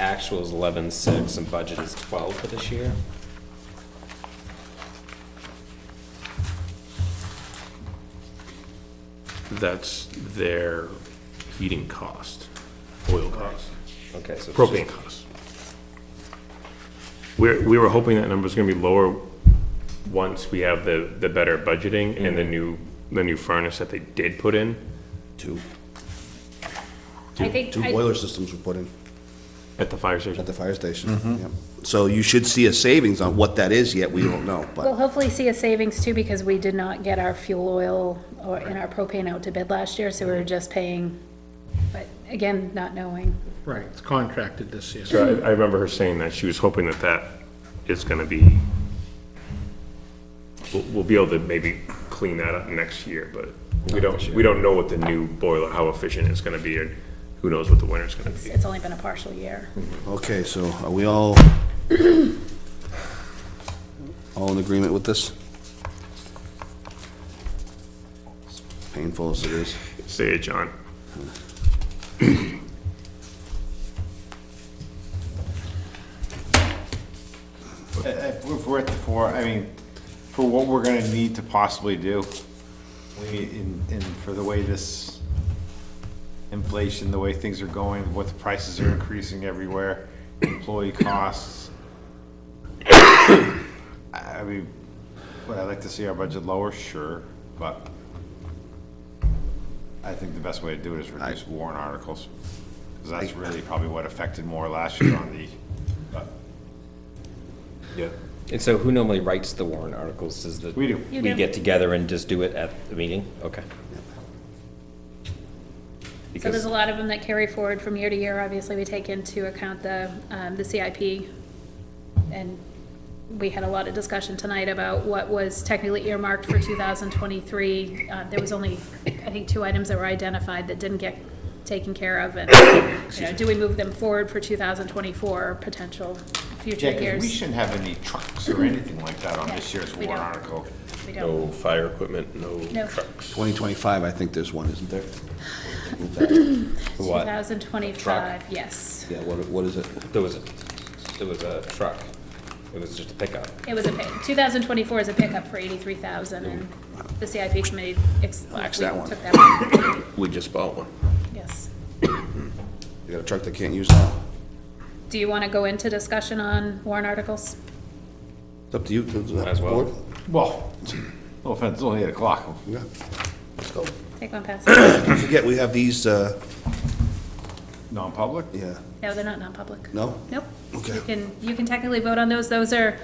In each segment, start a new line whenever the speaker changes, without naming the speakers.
actual is eleven six and budget is twelve for this year.
That's their heating cost, oil cost,
Okay, so. it's
propane
just-
cost. We're, we were hoping that number's gonna be lower once we have the, the better budgeting and the new, the new furnace that they did put in.
Two,
I think,
two
I-
boiler systems were put in
At the fire station.
at the fire station.
Mm-hmm.
Yep. So you should see a savings on what that is yet, we don't know,
we'll
but
hopefully see a savings too, because we did not get our fuel oil or, and our propane out to bid last year, so we were just paying, but again, not knowing.
Right, it's contracted this year.
So I, I remember her saying that, she was hoping that that is gonna be, we'll, we'll be able to maybe clean that up next year, but we don't, we don't know what the new boiler, how efficient it's gonna be, and who knows what the winter's gonna be.
It's only been a partial year.
okay, so are we all, all in agreement with this? Painful as it is.
Say it, John.
If if Uh, we're at the four, I mean, for what we're gonna need to possibly do, we, in, in, for the way this inflation, the way things are going, what the prices are increasing everywhere, employee costs. I I mean, would I like to see our budget lower? Sure, but I think the best way to do it is reduce warrant articles, because that's really probably what affected more last year on the, but
And so who normally writes the warrant articles? Does the?
we do.
You
We
do.
get together and just do it at the meeting? Okay.
So
Because,
there's a lot of them that carry forward from year to year. Obviously, we take into account the, um, the CIP. And we had a lot of discussion tonight about what was technically earmarked for two thousand twenty-three. Uh, there was only, I think, two items that were identified that didn't get taken care of. And, you know, do we move them forward for two thousand twenty-four potential future
Yeah, 'cause we
years?
shouldn't have any trucks or anything like that on this year's
Mm-hmm. we
warrant
don't.
article.
We don't.
No fire equipment, no
No.
trucks.
Twenty twenty-five, I think there's one, isn't there?
Two
what?
thousand twenty-five, yes.
Yeah, what, what is it?
there was a, there was a truck. It was just a pickup.
It was a, two thousand twenty-four is a pickup for eighty-three thousand, and the CIP committee ex-
Lacks that one.
took that one,
We just bought one.
yes.
You got a truck that can't use that?
Do you want to go into discussion on warrant articles?
It's up to you. Might
as well.
Well, no offense, it's only eight o'clock.
Yeah. Let's go.
Take one pass. No,
Don't forget, we have these, uh,
Non-public?
yeah,
they're not non-public.
no?
Nope.
Okay.
You can, you can technically vote on those, those are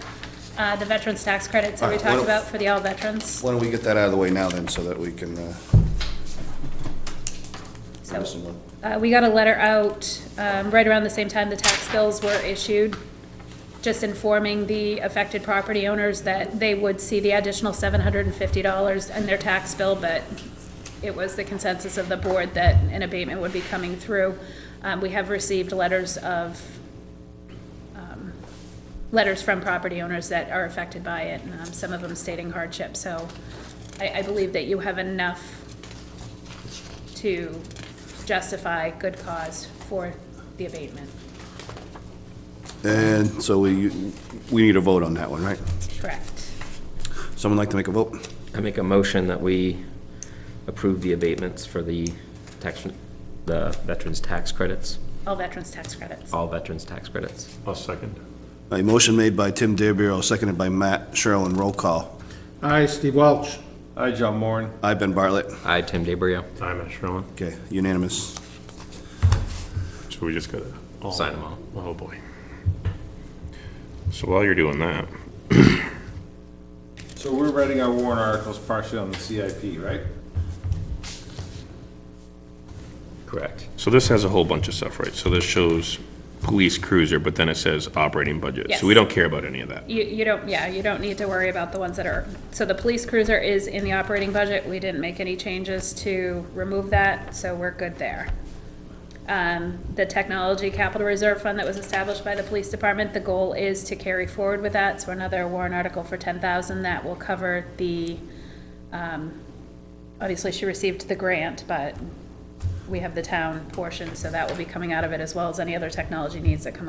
uh, the veterans' tax credits that we
All right, why
talked
don't-
about for the all veterans.
Why don't we get that out of the way now then, so that we can, uh,
So,
listen to-
Uh, we got a letter out, um, right around the same time the tax bills were issued, just informing the affected property owners that they would see the additional seven hundred and fifty dollars in their tax bill, but it was the consensus of the board that an abatement would be coming through. Um, we have received letters of, um, letters from property owners that are affected by it, and um, some of them stating hardship, so I, I believe that you have enough to justify good cause for the abatement.
And so we, we need a vote on that one, right?
Correct.
Someone like to make a vote?
I make a motion that we approve the abatements for the tax, the veterans' tax credits,
All veterans' tax credits.
all veterans' tax credits.
I'll second.
A motion made by Tim DeBrio, seconded by Matt Sherlin, roll call.
Aye, Steve Welch.
Hi, John Moran.
I, Ben Bartlett.
I, Tim DeBrio,
Time, Matt Sherlin.
Okay, unanimous.
So we just gotta. all-
Sign 'em all.
Oh, boy. So while you're doing that,
So we're writing our warrant articles partially on the CIP, right?
correct.
so this has a whole bunch of stuff, right? So this shows police cruiser, but then it says operating budget. So we
Yes.
don't care about any of that.
You, you don't, yeah, you don't need to worry about the ones that are, so the police cruiser is in the operating budget. We didn't make any changes to remove that, so we're good there. Um, the technology capital reserve fund that was established by the police department, the goal is to carry forward with that. So another warrant article for ten thousand that will cover the, um, obviously she received the grant, but we have the town portion, so that will be coming out of it as well as any other technology needs that come up.